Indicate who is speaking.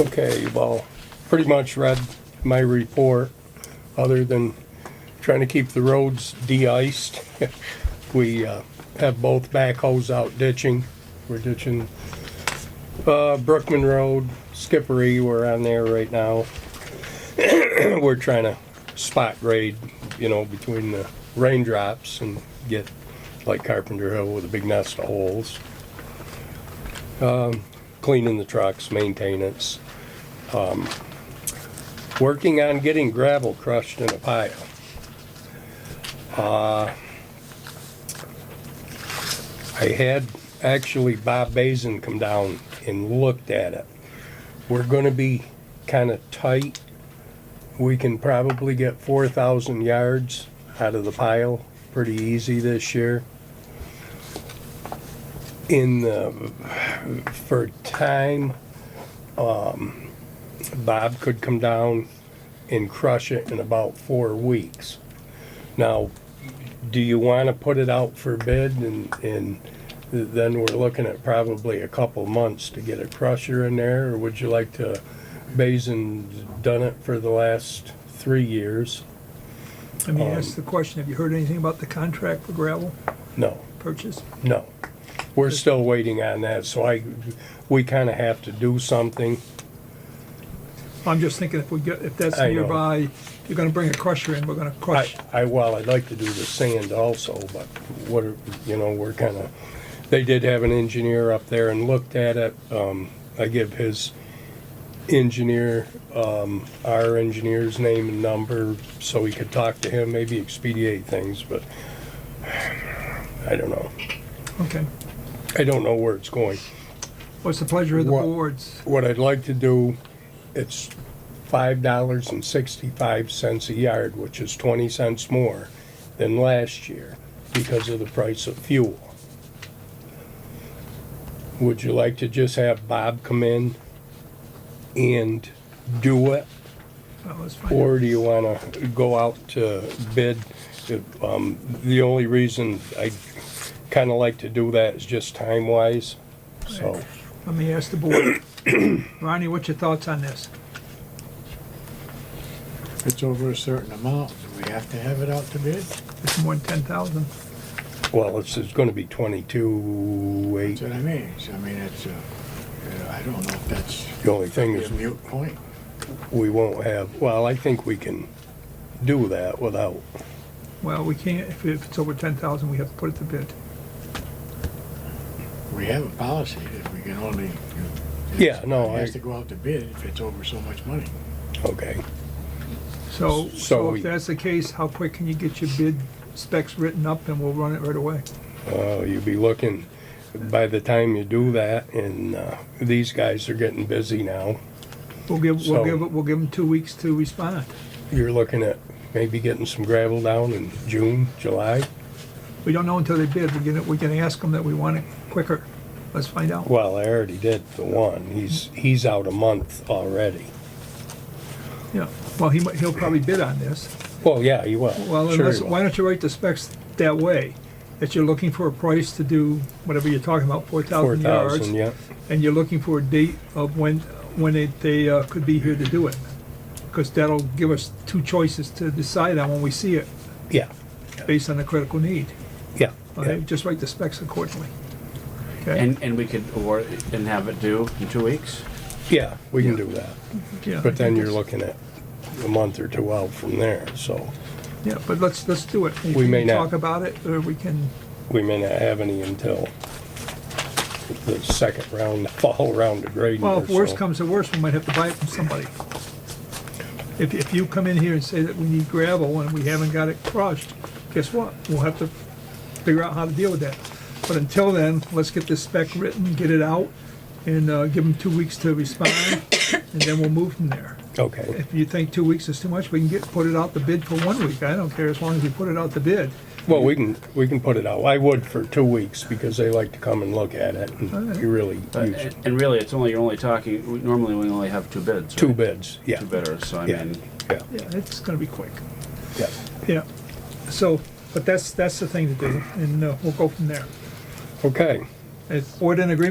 Speaker 1: Okay, well, pretty much read my report, other than trying to keep the roads de-iced. We uh, have both backhoes out ditching. We're ditching uh, Brookman Road, Skippery, we're on there right now. We're trying to spot grade, you know, between the raindrops and get like Carpenter Hill with a big nest of holes Um, cleaning the trucks, maintenance, um, working on getting gravel crushed in a pile. Uh, I had actually Bob Basin come down and looked at it. We're gonna be kinda tight. We can probably get four thousand yards out of the pile pretty easy this year. In the for a time, um, Bob could come down and crush it in about four weeks. Now, do you wanna put it out for bid and, and then we're looking at probably a couple months to get a crusher in there, or would you like to, Basin's done it for the last three years?
Speaker 2: Let me
Speaker 1: Um,
Speaker 2: ask the question, have you heard anything about the contract for gravel
Speaker 1: No.
Speaker 2: purchase?
Speaker 1: No. We're still waiting on that, so I, we kinda have to do something.
Speaker 2: I'm just thinking if we get, if that's
Speaker 1: I know.
Speaker 2: nearby, if you're gonna bring a crusher in, we're gonna
Speaker 1: I,
Speaker 2: crush.
Speaker 1: I, well, I'd like to do the sand also, but what, are- you know, we're kinda, they did have an engineer up there and looked at it. Um, I give his engineer, um, our engineer's name and number, so we could talk to him, maybe expedite things, but I don't know.
Speaker 2: Okay.
Speaker 1: I don't know where it's going.
Speaker 2: What's the pleasure of the
Speaker 1: What-
Speaker 2: boards?
Speaker 1: What I'd like to do, it's five dollars and sixty-five cents a yard, which is twenty cents more than last year because of the price of fuel. Would you like to just have Bob come in and do it?
Speaker 2: Oh, let's find out.
Speaker 1: Or do you wanna go out to bid? If, Um, the only reason I kinda like to do that is just time-wise, so.
Speaker 2: Let me ask the board. Ronnie, what's your thoughts on this?
Speaker 3: If it's over a certain amount, do we have to have it out to bid?
Speaker 2: It's more than ten thousand.
Speaker 1: Well, it's, it's gonna be twenty-two,
Speaker 3: That's
Speaker 1: eight.
Speaker 3: what I mean. So, I mean, it's, uh, uh, I don't know if that's
Speaker 1: The only thing
Speaker 3: a
Speaker 1: is,
Speaker 3: mute point.
Speaker 1: we won't have, well, I think we can do that without,
Speaker 2: Well, we can't, if, if it's over ten thousand, we have to put it to bid.
Speaker 3: We have a policy that we can only. it's-
Speaker 1: Yeah, no,
Speaker 3: It has
Speaker 1: Oh, I-
Speaker 3: to go out to bid if it's over so much money.
Speaker 1: okay.
Speaker 2: So,
Speaker 1: So
Speaker 2: so
Speaker 1: we-
Speaker 2: if that's the case, how quick can you get your bid specs written up and we'll run it right away?
Speaker 1: Uh, you'll be looking, by the time you do that, and, uh, these guys are getting busy now,
Speaker 2: We'll give,
Speaker 1: So-
Speaker 2: we'll give, it- we'll give them two weeks to respond.
Speaker 1: you're looking at maybe getting some gravel down in June, July.
Speaker 2: We don't know until they bid. We're gonna, we're gonna ask them that we want it quicker. Let's find out.
Speaker 1: Well, I already did the one, he's, he's out a month already.
Speaker 2: Yeah, well, he might, he'll probably bid on this.
Speaker 1: Well, yeah, he will.
Speaker 2: Well,
Speaker 1: Sure he
Speaker 2: unless,
Speaker 1: will.
Speaker 2: why don't you write the specs that way? That you're looking for a price to do whatever you're talking about, four thousand yards.
Speaker 1: 4,000, yeah.
Speaker 2: And you're looking for a date of when, when they, they uh, could be here to do it. Because that'll give us two choices to decide on when we see it,
Speaker 1: Yeah,
Speaker 2: based on the critical need.
Speaker 1: yeah, yeah.
Speaker 2: Okay, just write the specs accordingly. Okay,
Speaker 4: And, and we could award it and have it due in two weeks?
Speaker 1: Yeah, we can do that.
Speaker 2: yeah.
Speaker 1: But then you're looking at a month or two out from there, so
Speaker 2: Yeah, but let's, let's do it.
Speaker 1: We may not.
Speaker 2: Talk about it, or we can,
Speaker 1: we may not have any until the second round, the fall round of grading
Speaker 2: well,
Speaker 1: or
Speaker 2: if worse
Speaker 1: so.
Speaker 2: comes to worse, we might have to buy it from somebody. If, if you come in here and say that we need gravel and we haven't got it crushed, guess what? We'll have to figure out how to deal with that. But until then, let's get this spec written, get it out, and, uh, give them two weeks to respond, and then we'll move from there.
Speaker 1: Okay,
Speaker 2: If you think two weeks is too much, we can get, put it out the bid for one week. I don't care, as long as we put it out the bid.
Speaker 1: well, we can, we can put it out. I would for two weeks because they like to come and look at it and you really
Speaker 4: But,
Speaker 1: use
Speaker 4: Uh, and really, it's only, you're only talking, we- normally we only have two bids,
Speaker 1: two
Speaker 4: right?
Speaker 1: bids, yeah.
Speaker 4: Two bidders, so I
Speaker 1: Yeah,
Speaker 4: mean,
Speaker 1: yeah,
Speaker 2: Yeah, it's gonna be quick.
Speaker 1: yeah.
Speaker 2: Yeah, so, but that's, that's the thing to do, and uh, we'll go from there.
Speaker 1: Okay.
Speaker 2: Is board in agreement